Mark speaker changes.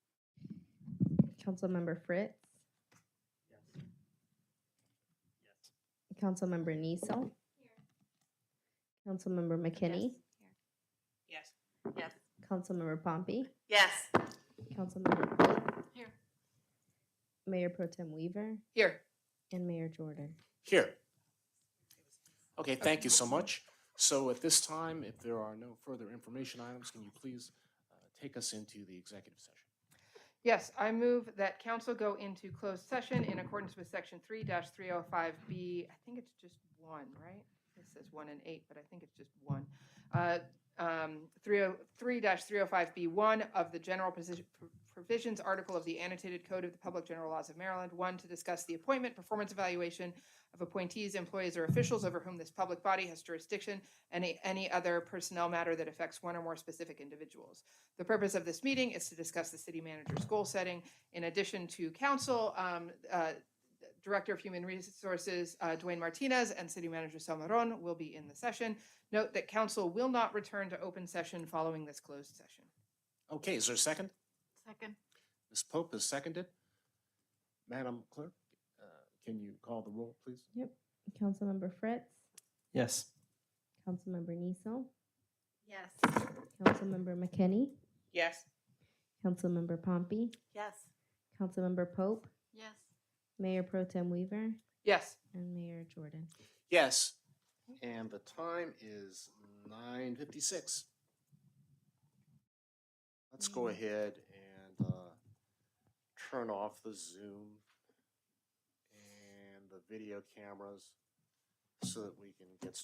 Speaker 1: Councilmember Fritz, Councilmember Niesel. Councilmember McKinney,
Speaker 2: Yes.
Speaker 1: Councilmember Pompey,
Speaker 2: Yes.
Speaker 1: Councilmember Colt.
Speaker 2: Here.
Speaker 1: Mayor Pro Tem Weaver
Speaker 2: Here.
Speaker 1: and Mayor Jordan.
Speaker 3: Here. Okay, thank you so much. So at this time, if there are no further information items, can you please uh, take us into the executive session?
Speaker 4: Yes, I move that council go into closed session in accordance with section three three oh five B. I think it's just one, right? This says one and eight, but I think it's just one. Uh, um, Three oh, three three oh five B one of the general position provisions article of the annotated code of the public general laws of Maryland. One, to discuss the appointment, performance evaluation of appointees, employees, or officials over whom this public body has jurisdiction, and a- any other personnel matter that affects one or more specific individuals. The purpose of this meeting is to discuss the city manager's goal setting. In addition to council, um, uh, Director of Human Resources, uh, Dwayne Martinez, and City Manager Salmaron will be in the session. Note that council will not return to open session following this closed session.
Speaker 3: Okay, is there a second?
Speaker 2: Second.
Speaker 3: Ms. Pope has seconded. Madam Clerk, uh, can you call the roll, please?
Speaker 1: Councilmember Fritz,
Speaker 5: Yes.
Speaker 1: Councilmember Niesel,
Speaker 2: Yes.
Speaker 1: Councilmember McKinney,
Speaker 2: Yes.
Speaker 1: Councilmember Pompey,
Speaker 2: Yes.
Speaker 1: Councilmember Pope,
Speaker 2: Yes.
Speaker 1: Mayor Pro Tem Weaver,
Speaker 4: Yes,
Speaker 1: and Mayor Jordan.
Speaker 3: Yes. And the time is nine fifty-six. Let's go ahead and uh, turn off the Zoom and the video cameras so that we can get started.